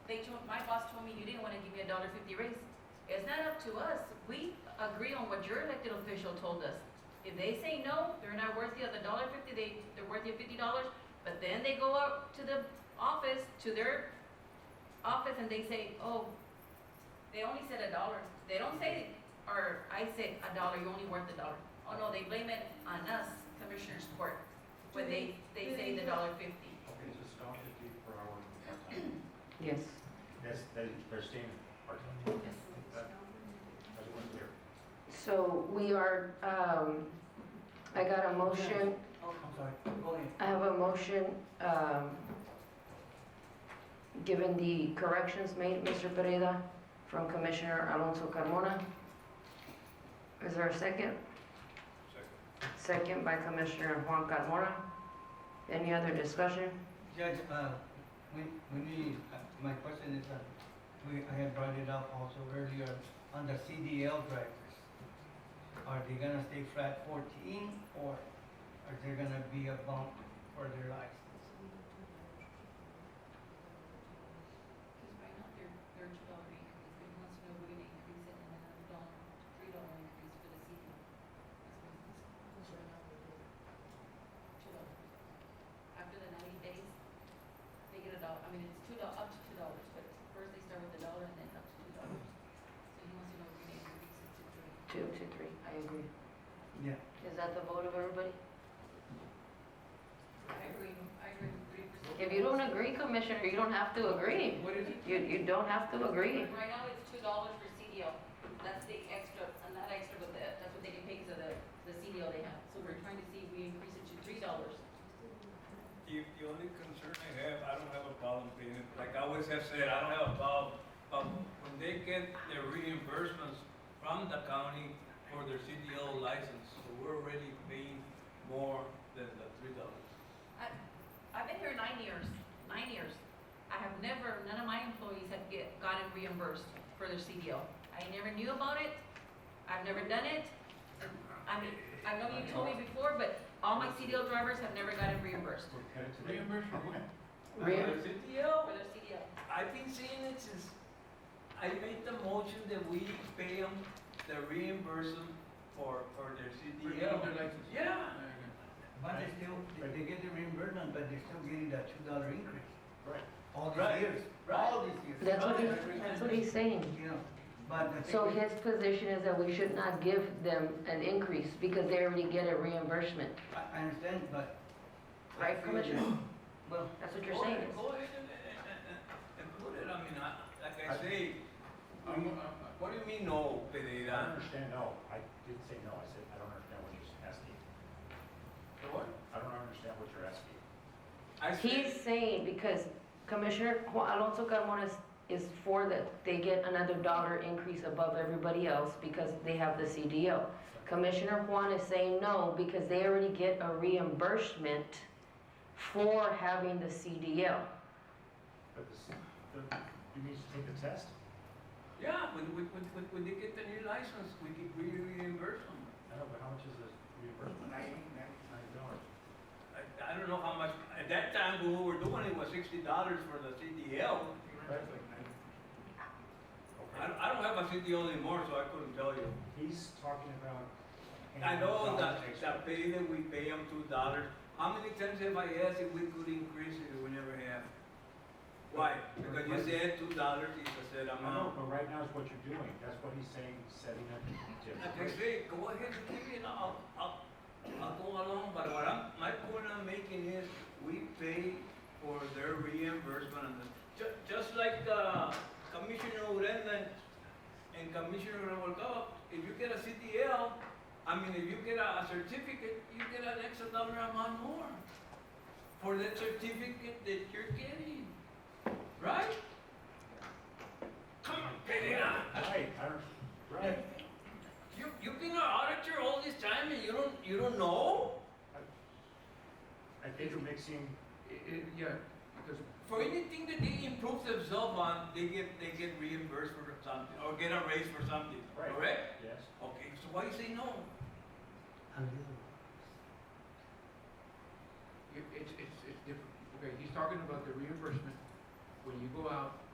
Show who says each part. Speaker 1: they told, my boss told me you didn't wanna give me a dollar fifty raise. It's not up to us, we agree on what your elected official told us. If they say no, they're not worthy of the dollar fifty, they, they're worthy of fifty dollars, but then they go up to the office, to their office and they say, oh, they only said a dollar, they don't say, or I said a dollar, you only worth a dollar. Oh no, they blame it on us, Commissioners Court, when
Speaker 2: Do
Speaker 1: they,
Speaker 2: they-
Speaker 1: they
Speaker 2: do
Speaker 1: say
Speaker 2: they
Speaker 1: the
Speaker 2: do-
Speaker 1: dollar fifty.
Speaker 3: Okay, so it's not fifty per hour. part-time.
Speaker 4: Yes.
Speaker 3: That's, that is, they're staying part-time. That's what we're
Speaker 4: So we are, um, I got a motion,
Speaker 5: Oh, I'm sorry, go ahead.
Speaker 4: I have a motion, um, given the corrections made, Mr. Pereira, from Commissioner Alonso Carmona. Is there a second?
Speaker 3: Second.
Speaker 4: Second by Commissioner Juan Carmona. Any other discussion?
Speaker 5: Judge, uh, when, when we, uh, my question is, uh, we, I had brought it up also earlier, on the CDL drivers. Are they gonna stay flat fourteen, or are there gonna be a bump for their license?
Speaker 1: Because right now, they're, they're two dollar increase, but he wants to know we're gonna increase it and another dollar, three dollar increase for the season. Two dollars. After the ninety days, they get a dollar, I mean, it's two dollars up to two dollars, but first they start with a dollar and then up to two dollars. So he wants to know we're gonna increase it to three.
Speaker 4: Two, two, three. I agree.
Speaker 5: Yeah,
Speaker 4: Is that the vote of everybody?
Speaker 1: I agree, I agree with three percent.
Speaker 4: If you don't agree, Commissioner, you don't have to agree.
Speaker 5: what is it?
Speaker 4: You, you don't have to agree.
Speaker 1: Right now, it's two dollars for CDL, that's the extra, uh, not extra, but the, that's what they can pay because of the, the CDL they have. So we're trying to see if we increase it to three dollars.
Speaker 6: The, the only concern I have, I don't have a problem paying it, like I always have said, I don't have a problem. But when they get their reimbursements from the county for their CDL license, so we're already paying more than the three dollars.
Speaker 1: I've been here nine years, nine years. I have never, none of my employees have get, gotten reimbursed for their CDL. I never knew about it, I've never done it. I mean, I know you told me before, but all my CDL drivers have never gotten reimbursed
Speaker 3: We're headed to. Reimbursement when?
Speaker 4: Really?
Speaker 6: For the CDL,
Speaker 1: for their CDL.
Speaker 6: I've been saying it since I made the motion that we pay them, the reimbursement for, for their CDL. Yeah.
Speaker 5: But they still, they- they get the reimbursement, but they're still getting that two dollar increase.
Speaker 3: Right.
Speaker 5: All
Speaker 6: Right,
Speaker 5: these years,
Speaker 6: right.
Speaker 5: all these years.
Speaker 4: That's what he, that's what he's saying.
Speaker 5: You know, but the thing
Speaker 4: So
Speaker 5: is-
Speaker 4: his position is that we should not give them an increase because they already get a reimbursement.
Speaker 5: I, I understand, but. I
Speaker 4: Right,
Speaker 5: feel
Speaker 4: Commissioner?
Speaker 5: that- Well,
Speaker 4: That's what
Speaker 6: Go
Speaker 4: you're saying.
Speaker 6: ahead, Go ahead and, and, and- and put it, I mean, I, like I say,
Speaker 3: I'm-
Speaker 6: what do you mean no,
Speaker 3: I don't
Speaker 6: Pereira?
Speaker 3: understand, no, I didn't say no, I said, I don't understand what you're asking.
Speaker 6: What?
Speaker 3: I don't understand what you're asking.
Speaker 6: I said,
Speaker 4: He's saying because Commissioner Juan Alonso Carmona is, is for that they get another dollar increase above everybody else because they have the CDL. Commissioner Juan is saying no because they already get a reimbursement for having the CDL.
Speaker 3: But this, the, you mean to take the test?
Speaker 6: yeah, when, when, when, when- when they get the new license, we can re- reimburse them.
Speaker 3: I don't know, but how much is the reimbursement? Ninety, ninety dollars.
Speaker 6: I, I don't know how much, at that time, when we were doing it was sixty dollars for the CDL. I,
Speaker 3: Okay,
Speaker 6: don't- I don't have a CDL anymore, so I couldn't tell you.
Speaker 3: he's talking about.
Speaker 6: I know that,
Speaker 3: paying
Speaker 6: that pay that we pay them two dollars, how many times have I asked if we could increase it, we never have? Why? Because you said two dollars is a set
Speaker 3: I know,
Speaker 6: amount.
Speaker 3: but right now is what you're doing, that's what he's saying, setting up.
Speaker 6: Like I say, go ahead and give it, I'll, I'll, I'll go along, but what I'm, my point I'm making is, we pay for their reimbursement and the, ju- just like, uh, Commissioner Urenda and Commissioner Revolcado, if you get a CDL, I mean, if you get a, a certificate, you get an extra dollar amount more for that certificate that you're getting, right? Come on, get it out.
Speaker 3: Right, I don't, right.
Speaker 6: You, you've been an auditor all this time and you don't, you don't know?
Speaker 3: I think you're mixing,
Speaker 7: Eh, Yeah, because
Speaker 6: For anything that they improve themselves on, they get, they get reimbursed for something, or get a raise for something,
Speaker 3: Right.
Speaker 6: correct?
Speaker 3: yes,
Speaker 6: Okay, so why you say no?
Speaker 7: it- it's, it's, it's different. Okay, he's talking about the reimbursement. When you go out